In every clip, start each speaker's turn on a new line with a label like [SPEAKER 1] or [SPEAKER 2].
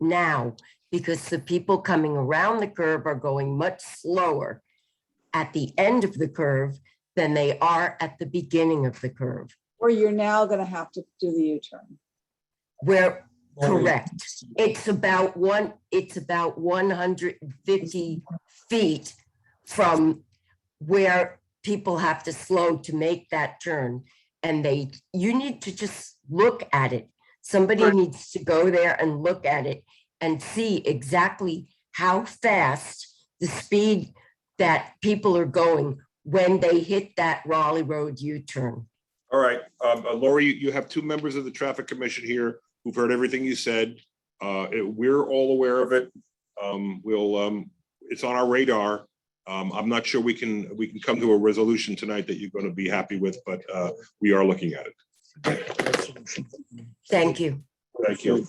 [SPEAKER 1] now because the people coming around the curve are going much slower at the end of the curve than they are at the beginning of the curve.
[SPEAKER 2] Or you're now going to have to do the U-turn.
[SPEAKER 1] Where, correct, it's about one, it's about one hundred and fifty feet from where people have to slow to make that turn. And they, you need to just look at it. Somebody
[SPEAKER 2] Right.
[SPEAKER 1] needs to go there and look at it and see exactly how fast the speed that people are going when they hit that Raleigh Road U-turn.
[SPEAKER 3] All right, um, uh, Lori, you- you have two members of the traffic commission here who've heard everything you said. Uh, it- we're all aware of it. Um, we'll, um, it's on our radar. Um, I'm not sure we can, we can come to a resolution tonight that you're going to be happy with, but, uh, we are looking at it.
[SPEAKER 1] Thank you.
[SPEAKER 3] Thank you.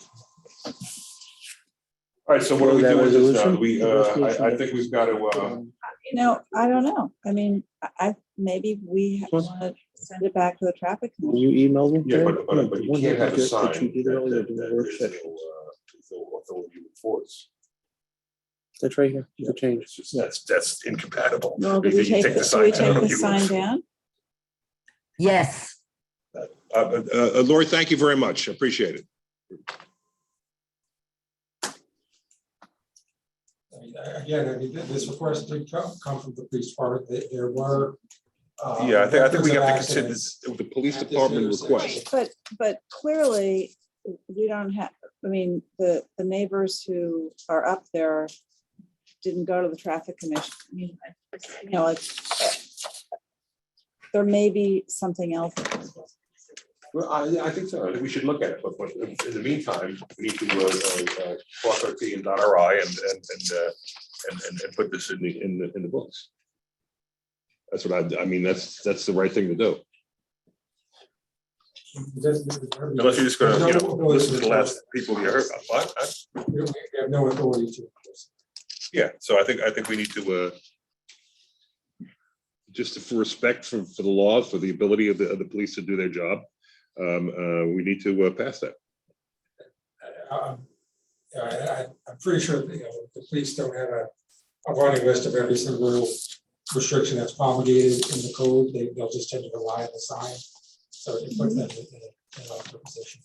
[SPEAKER 3] All right, so what do we do with this now? Do We, uh, I, I think we've got to, uh,
[SPEAKER 4] Um,
[SPEAKER 2] You know, I don't know. I mean, I, I, maybe we
[SPEAKER 5] Sure.
[SPEAKER 2] want to send it back to the traffic. commission.
[SPEAKER 5] You emailed me?
[SPEAKER 3] yeah,
[SPEAKER 5] Jared?
[SPEAKER 3] but, but, but you
[SPEAKER 5] Wonder
[SPEAKER 3] can't
[SPEAKER 5] if
[SPEAKER 3] have a
[SPEAKER 5] did- did
[SPEAKER 3] sign.
[SPEAKER 5] you email me or
[SPEAKER 3] that-
[SPEAKER 5] do
[SPEAKER 3] that
[SPEAKER 5] a work
[SPEAKER 3] there's
[SPEAKER 5] session?
[SPEAKER 3] no, uh, no authority to enforce.
[SPEAKER 5] That's right here. You can change.
[SPEAKER 3] It's just- That's, that's incompatible.
[SPEAKER 2] Well, do
[SPEAKER 3] If
[SPEAKER 2] we
[SPEAKER 3] you
[SPEAKER 2] take,
[SPEAKER 3] take
[SPEAKER 2] do
[SPEAKER 3] the
[SPEAKER 2] we
[SPEAKER 3] sign down,
[SPEAKER 2] take the
[SPEAKER 3] you-
[SPEAKER 2] sign down?
[SPEAKER 1] Yes.
[SPEAKER 3] Uh, uh, uh, Lori, thank you very much. Appreciate it.
[SPEAKER 6] I mean, Again, I mean, th- this request did come, come from the police department, There- there were. uh,
[SPEAKER 3] Yeah, I think, I think we have
[SPEAKER 6] records of
[SPEAKER 3] to consider
[SPEAKER 6] accidents.
[SPEAKER 3] this, the police
[SPEAKER 6] At this
[SPEAKER 3] department
[SPEAKER 6] intersection.
[SPEAKER 3] request.
[SPEAKER 2] But, but clearly, we don't have, I mean, the, the neighbors who are up there didn't go to the traffic commission. I mean, I- You know, it's, there may be something else.
[SPEAKER 3] Well, I, I think so. I think we should look at it, but, but in the meantime, we need to, uh, uh, uh, cross our T and dot our I and, and, and, uh, and, and, and put this in the, in the, in the books. That's what I, I mean, that's, that's the right thing to do.
[SPEAKER 6] This- this is-
[SPEAKER 3] Unless you're just gonna, you know,
[SPEAKER 6] There's no-
[SPEAKER 3] listen to the last people you heard. I- I-
[SPEAKER 6] We we have no authority to. enforce.
[SPEAKER 3] Yeah, so I think, I think we need to, uh, just for respect for, for the law, for the ability of the, of the police to do their job, um, uh, we need to uh, pass that.
[SPEAKER 6] Uh, um, I, I, I'm pretty sure, that, you know, the police don't have a, a running list of every single restriction that's promulgated in the code, they, they'll just tend to rely on the sign. So it puts them in a, in a awkward position.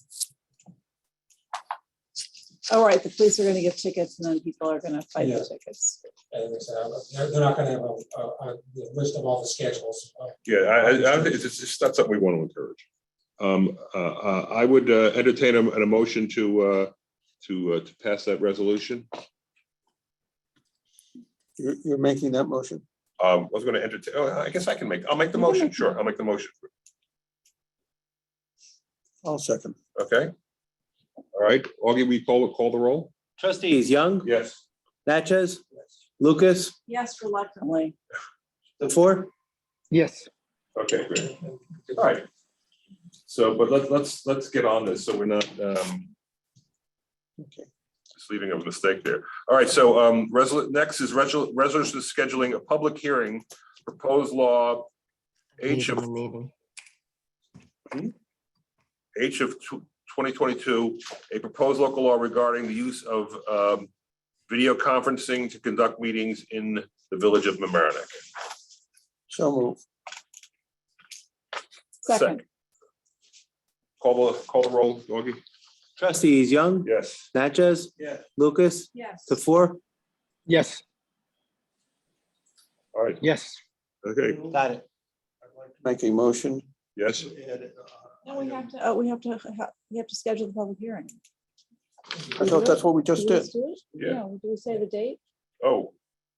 [SPEAKER 2] All right, the police are gonna give tickets and then people are gonna fight
[SPEAKER 6] Yeah.
[SPEAKER 2] the tickets.
[SPEAKER 6] And they said, uh, they're, they're not gonna have a, a, a the list of all the schedules. uh,
[SPEAKER 3] Yeah, I, I, I don't think it's, it's just not something we want to encourage. Um, uh, uh, I would uh, entertain a- an emotion to, uh, to, uh, to pass that resolution.
[SPEAKER 4] You're, you're making that motion.
[SPEAKER 3] Um, I was gonna entertain, oh, I guess I can make, I'll make the motion, sure, I'll make the motion,
[SPEAKER 4] I'll second.
[SPEAKER 3] okay? All right, Augie, we call, call the roll?
[SPEAKER 5] Trustees Young,
[SPEAKER 3] Yes.
[SPEAKER 5] Natchez, Lucas,
[SPEAKER 2] Yes, reluctantly.
[SPEAKER 5] the four?
[SPEAKER 4] Yes.
[SPEAKER 3] Okay, great. All right. So, but let's, let's, let's get on this, so we're not, um.
[SPEAKER 4] Okay.
[SPEAKER 3] Just leaving a mistake there. All right, so, um, resol, next is resol, resolution scheduling a public hearing, proposed law. H of,
[SPEAKER 1] Meeting.
[SPEAKER 3] Hmm? H of twenty twenty-two, a proposed local law regarding the use of, um. Video conferencing to conduct meetings in the village of Mamaroneck.
[SPEAKER 4] So move.
[SPEAKER 2] Second,
[SPEAKER 3] Call the, call the roll, Augie?
[SPEAKER 5] Trustees Young,
[SPEAKER 3] Yes.
[SPEAKER 5] Natchez?
[SPEAKER 4] Yeah.
[SPEAKER 5] Lucas,
[SPEAKER 2] yes.
[SPEAKER 5] the four?
[SPEAKER 7] Yes,
[SPEAKER 3] All right,
[SPEAKER 7] yes.
[SPEAKER 3] okay,
[SPEAKER 5] Got it.
[SPEAKER 4] Make a motion.
[SPEAKER 3] yes.
[SPEAKER 2] No, we have to, oh, we have to, ha- we have to schedule the public hearing.
[SPEAKER 4] I thought that's what we just
[SPEAKER 2] we
[SPEAKER 4] did.
[SPEAKER 2] do it?
[SPEAKER 3] Yeah.
[SPEAKER 2] No, do we say the date?
[SPEAKER 3] Oh,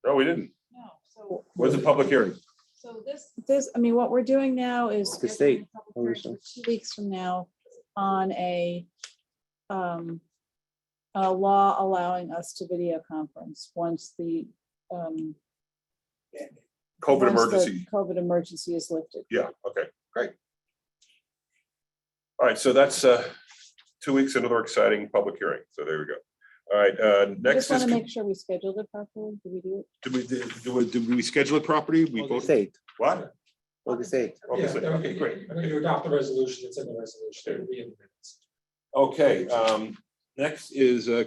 [SPEAKER 3] no, we didn't.
[SPEAKER 2] No, so.
[SPEAKER 3] Where's the public hearing?
[SPEAKER 2] So this. This, I mean, what we're doing now is.
[SPEAKER 5] The state.
[SPEAKER 2] scheduling a public hearing for Two weeks from now on a, um, a law allowing us to video conference once the, um. once
[SPEAKER 3] COVID
[SPEAKER 2] the
[SPEAKER 3] emergency.
[SPEAKER 2] COVID emergency is lifted.
[SPEAKER 3] Yeah, okay, great. All right, so that's uh, two weeks, another exciting public hearing. So there we go. All right, uh,
[SPEAKER 2] I
[SPEAKER 3] next
[SPEAKER 2] Just
[SPEAKER 3] is,
[SPEAKER 2] want to make sure we scheduled it properly. Did we do it?
[SPEAKER 3] did we, did we- did we schedule it properly? We
[SPEAKER 5] August
[SPEAKER 3] voted,
[SPEAKER 5] eighth,
[SPEAKER 3] what?
[SPEAKER 5] August eighth.
[SPEAKER 3] August
[SPEAKER 6] Yeah,
[SPEAKER 3] eighth, Okay,
[SPEAKER 6] you-
[SPEAKER 3] great.
[SPEAKER 6] I mean, you adopt the resolution, it's in the resolution, it'll be in the minutes.
[SPEAKER 3] Okay, um, next is uh,